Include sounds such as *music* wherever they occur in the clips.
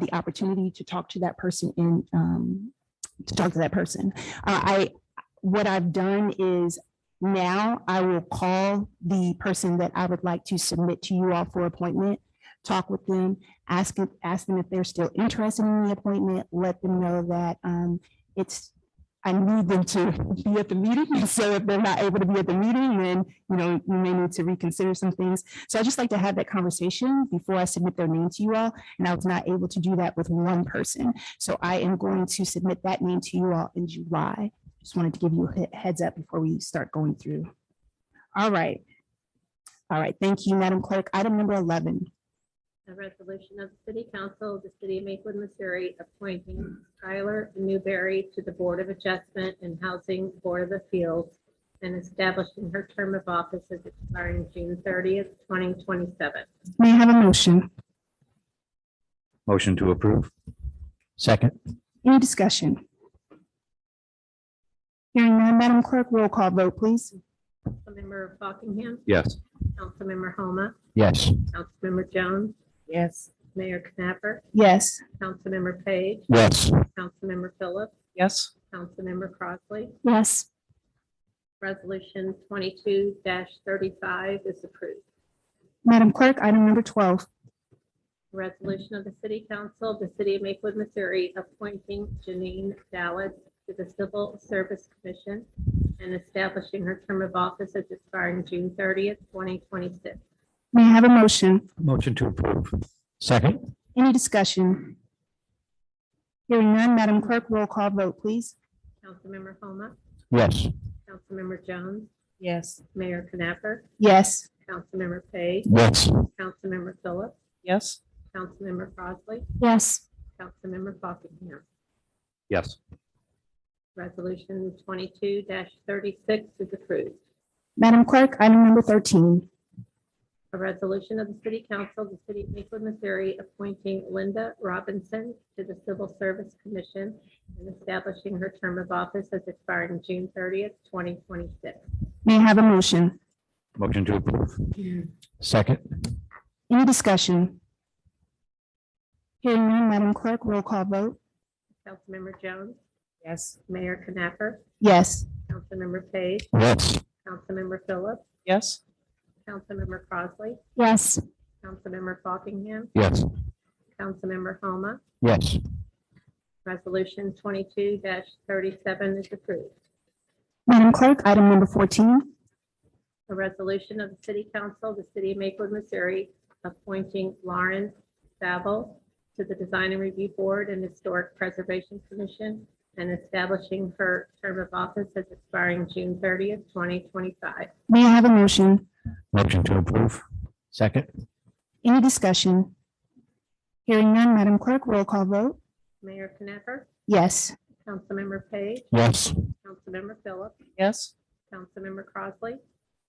the opportunity to talk to that person in, um, to talk to that person. Uh, I, what I've done is now I will call the person that I would like to submit to you all for appointment, talk with them, ask, if- ask them if they're still interested in the appointment, let them know that, um, it's, I need them to *laughs* be at the meeting. So if they're not able to be at the meeting, then, you know, you may need to reconsider some things. So I just like to have that conversation before I submit their name to you all. And I was not able to do that with one person. So I am going to submit that name to you all in July. Just wanted to give you a he- heads up before we start going through. All right. All right, thank you, Madam Clerk. Item number eleven. A resolution of the City Council of the City of Maplewood, Missouri, appointing Tyler Newberry to the Board of Adjustment and Housing Board of Appeals and establishing her term of office as expiring June thirtieth, twenty twenty-seven. May I have a motion? Motion to approve. Second. Any discussion? Hearing none, Madam Clerk, roll call vote, please. Councilmember Buckingham, Yes. Councilmember Homa, Yes. Councilmember Jones. Yes. Mayor Knapper, Yes. Councilmember Page, Yes. Councilmember Phillips, Yes, Councilmember Crossley. Yes. Resolution twenty-two thirty-five is approved. Madam Clerk, item number twelve. Resolution of the City Council of the City of Maplewood, Missouri, appointing Janine Dallas to the Civil Service Commission and establishing her term of office as expiring June thirtieth, twenty twenty-six. May I have a motion? Motion to approve. Second. Any discussion? Hearing none, Madam Clerk, roll call vote, please. Councilmember Homa, Yes. Councilmember Jones, yes, Mayor Knapper, Yes. Councilmember Page, Yes. Councilmember Phillips, yes, Councilmember Crossley, Yes. Councilmember Buckingham. Yes. Resolution twenty-two thirty-six is approved. Madam Clerk, item number thirteen. A resolution of the City Council of the City of Maplewood, Missouri, appointing Linda Robinson to the Civil Service Commission and establishing her term of office as expiring June thirtieth, twenty twenty-six. May I have a motion? Motion to approve. Second. Any discussion? Hearing none, Madam Clerk, roll call vote. Councilmember Jones, yes, Mayor Knapper, Yes. Councilmember Page, Yes. Councilmember Phillips, yes, Councilmember Crossley, Yes. Councilmember Buckingham, Yes. Councilmember Homa. Yes. Resolution twenty-two thirty-seven is approved. Madam Clerk, item number fourteen. A resolution of the City Council of the City of Maplewood, Missouri, appointing Lauren Saville to the Design and Review Board and Historic Preservation Commission and establishing her term of office as expiring June thirtieth, twenty twenty-five. May I have a motion? Motion to approve. Second. Any discussion? Hearing none, Madam Clerk, roll call vote. Mayor Knapper, Yes. Councilmember Page, Yes. Councilmember Phillips, yes, Councilmember Crossley,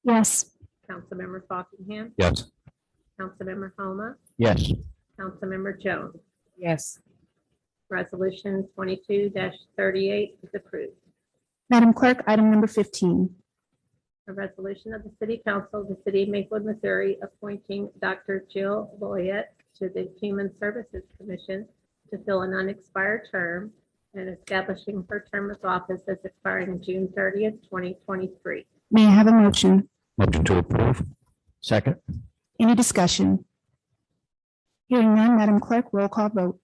Yes. Councilmember Buckingham, Yes. Councilmember Homa, Yes. Councilmember Jones. yes, Resolution twenty-two thirty-eight is approved. Madam Clerk, item number fifteen. A resolution of the City Council of the City of Maplewood, Missouri, appointing Dr. Jill Boyett to the Human Services Commission to fill an unexpired term and establishing her term of office as expiring June thirtieth, twenty twenty-three. May I have a motion? Motion to approve. Second. Any discussion? Hearing none, Madam Clerk, roll call vote.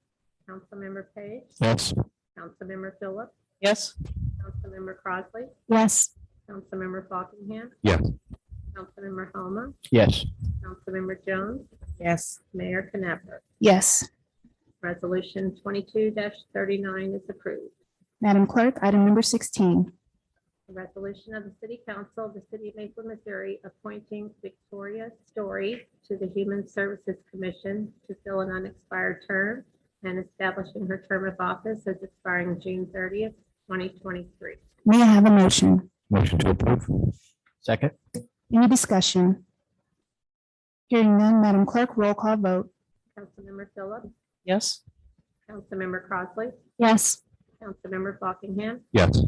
Councilmember Page, Yes. Councilmember Phillips, yes, Councilmember Crossley, Yes. Councilmember Buckingham. Yes. Councilmember Homa, Yes. Councilmember Jones, yes, Mayor Knapper. Yes. Resolution twenty-two thirty-nine is approved. Madam Clerk, item number sixteen. A resolution of the City Council of the City of Maplewood, Missouri, appointing Victoria Story to the Human Services Commission to fill an unexpired term and establishing her term of office as expiring June thirtieth, twenty twenty-three. May I have a motion? Motion to approve. Second. Any discussion? Hearing none, Madam Clerk, roll call vote. Councilmember Phillips, yes, Councilmember Crossley, Yes. Councilmember Buckingham, Yes.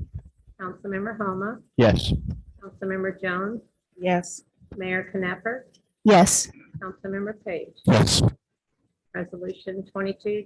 Councilmember Homa, Yes. Councilmember Jones, yes, Mayor Knapper, Yes. Councilmember Page. Yes. Resolution twenty-two